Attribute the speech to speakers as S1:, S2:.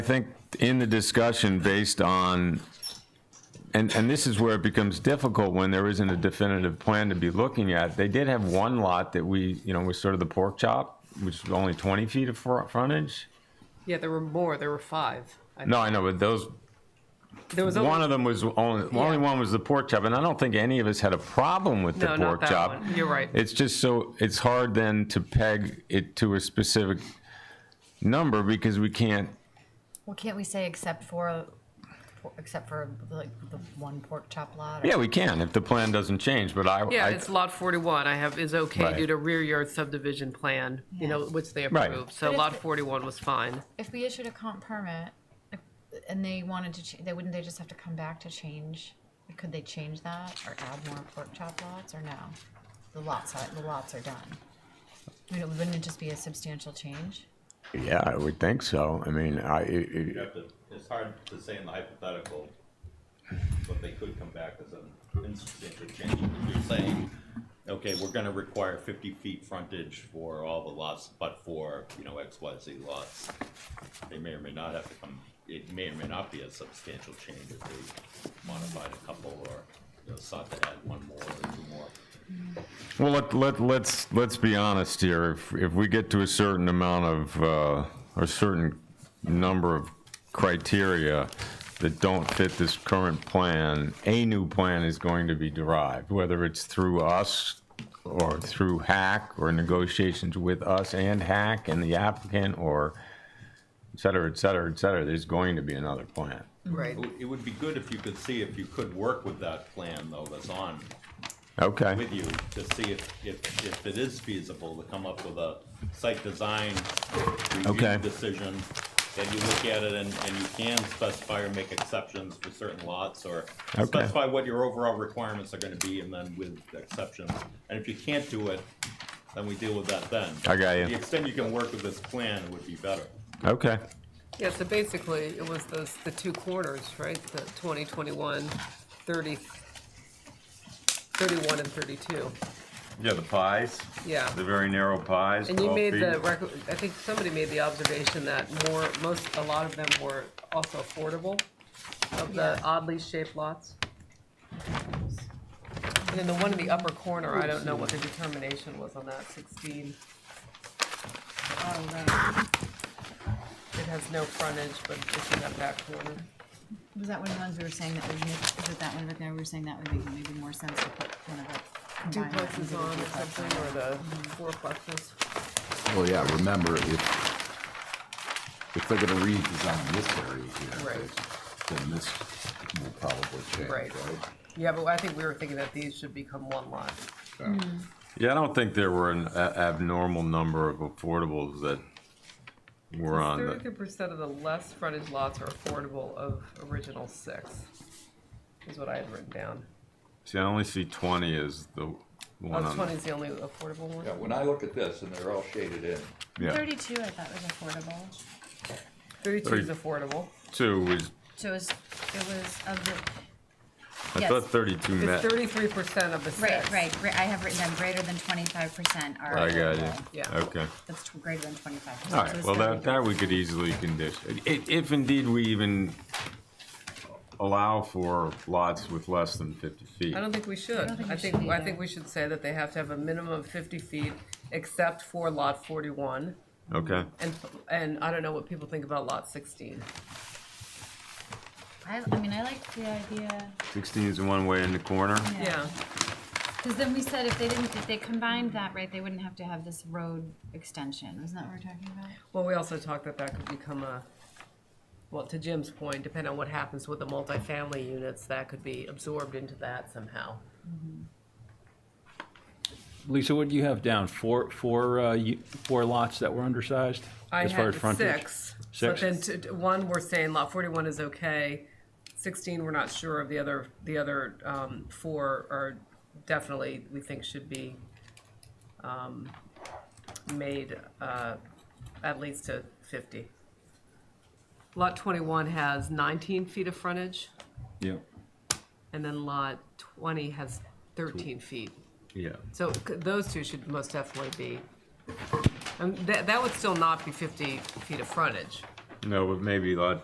S1: I think in the discussion based on, and, and this is where it becomes difficult when there isn't a definitive plan to be looking at. They did have one lot that we, you know, was sort of the pork chop, which was only 20 feet of fro- frontage.
S2: Yeah, there were more. There were five. I-
S1: No, I know, but those,
S2: There was
S1: one
S2: only,
S1: of them was only, only one was the pork chop. And I don't think any of us had a problem with the
S2: no, not
S1: pork
S2: that
S1: chop.
S2: one. You're right.
S1: It's just so, it's hard then to peg it to a specific number because we can't
S3: Well, can't we say except for, except for like the one pork chop lot? or-
S1: Yeah, we can, if the plan doesn't change, but I.
S2: yeah,
S1: I-
S2: it's lot 41. I have is okay
S1: Right.
S2: due to rear yard subdivision plan, you know, which they
S1: Right.
S2: approved. So
S3: But if
S2: lot
S3: the-
S2: 41 was fine.
S3: If we issued a comp permit if- and they wanted to, cha- they, wouldn't they just have to come back to change? Could they change that or add more pork chop lots or no? The lots, are- the lots are done. I mean, wouldn't it just be a substantial change?
S1: Yeah, I would think so. I mean, I, it-
S4: You
S1: it-
S4: have to, it's hard to say in the hypothetical, but they could come back as an insubstantial change. If you're saying, okay, we're gonna require fifty feet frontage for all the lots, but for, you know, X, Y, Z lots, they may or may not have to come, it may or may not be a substantial change if they modified a couple or, you know, sought to add one more or two more.
S1: well, let, let, let's, let's be honest here. If, if we get to a certain amount of, uh, or certain number of criteria that don't fit this current plan, a new plan is going to be derived, whether it's through us or through hack or negotiations with us and hack and the applicant or et cetera, et cetera, et cetera. There's going to be another plan.
S2: Right.
S4: It would- It would be good if you could see, if you could work with that plan though that's on
S1: Okay.
S4: with you to see if, if, if it is feasible to come up with a site design
S1: Okay.
S4: review decision. That you look at it and, and you can specify or make exceptions for certain lots or
S1: Okay.
S4: specify what your overall requirements are gonna be and then with exceptions. And if you can't do it, then we deal with that then.
S1: I got you.
S4: The extent you can work with this plan would be better.
S1: Okay.
S2: Yeah, so basically it was those the two corners, right? The 20, 21, 30, 31 and 32.
S5: Yeah, the pies.
S2: Yeah.
S5: The very narrow pies.
S2: And you
S5: 12
S2: made
S5: feet.
S2: the rec- I think somebody made the observation that more most a lot of them were also affordable of the
S3: Yeah.
S2: oddly shaped lots. And then the one in the upper corner, I don't know what the determination was on that sixteen. I don't know. It has no frontage, but it's in that back corner.
S3: Was that one of the ones we were saying that would make, is it that one, Rick, we were saying that would make maybe more sense to put one of the.
S2: Duplexes on or something, or the fourplexes.
S6: Well, yeah, remember, if, if they're gonna redesign this area here,
S2: Right.
S6: then this will probably change,
S2: Right.
S6: right?
S2: Yeah, but I think we were thinking that these should become one lot.
S6: So,
S2: Mm-hmm.
S1: Yeah, I don't think there were an a- abnormal number of affordables that were on
S2: Thirty-three
S1: the,
S2: percent of the less frontage lots are affordable of original six, is what I had written down.
S1: see, I only see twenty as the one
S2: Oh,
S1: on.
S2: twenty
S1: the-
S2: is the only affordable one?
S7: Yeah, when I look at this, and they're all shaded in,
S1: Yeah,
S3: Thirty-two, I thought was affordable.
S2: Thirty-two is affordable.
S1: two was,
S3: So it was, it was of the,
S1: I
S3: Yes.
S1: thought thirty-two
S2: It's
S1: met.
S2: thirty-three percent of the
S3: Right,
S2: six.
S3: right, gri- I have written down greater than twenty-five percent are.
S1: I got you.
S3: affordable.
S2: Yeah.
S1: Okay.
S3: That's tw- greater than twenty-five percent.
S1: All right, well, that, that we could easily condition, if, if indeed we even allow for lots with less than fifty feet.
S2: I don't think we should.
S3: don't think
S2: I
S3: we
S2: think,
S3: should
S2: I
S3: either.
S2: think we should say that they have to have a minimum of fifty feet, except for lot forty-one,
S1: Okay,
S2: and, and I don't know what people think about lot sixteen.
S3: I, I mean, I like the idea,
S1: sixteen is the one way in the corner.
S2: Yeah,
S3: because then we said if they didn't, if they combined that, right, they wouldn't have to have this road extension, isn't that what we're talking about?
S2: well, we also talked that that could become a, well, to Jim's point, depending on what happens with the multifamily units, that could be absorbed into that somehow.
S8: Lisa, what do you have down? Four, four, uh, you- four lots that were undersized?
S2: I
S8: as far
S2: had
S8: as frontage?
S2: six. But
S8: Six?
S2: then t- t- one, we're saying lot forty-one is okay. Sixteen, we're not sure of. The other, the other, um, four are definitely, we think should be, um, made, uh, at least to fifty. Lot twenty-one has nineteen feet of frontage,
S1: Yeah.
S2: and then lot twenty has thirteen feet.
S1: Yeah.
S2: So c- those two should most definitely be, and that, that would still not be fifty feet of frontage.
S1: No, but maybe lot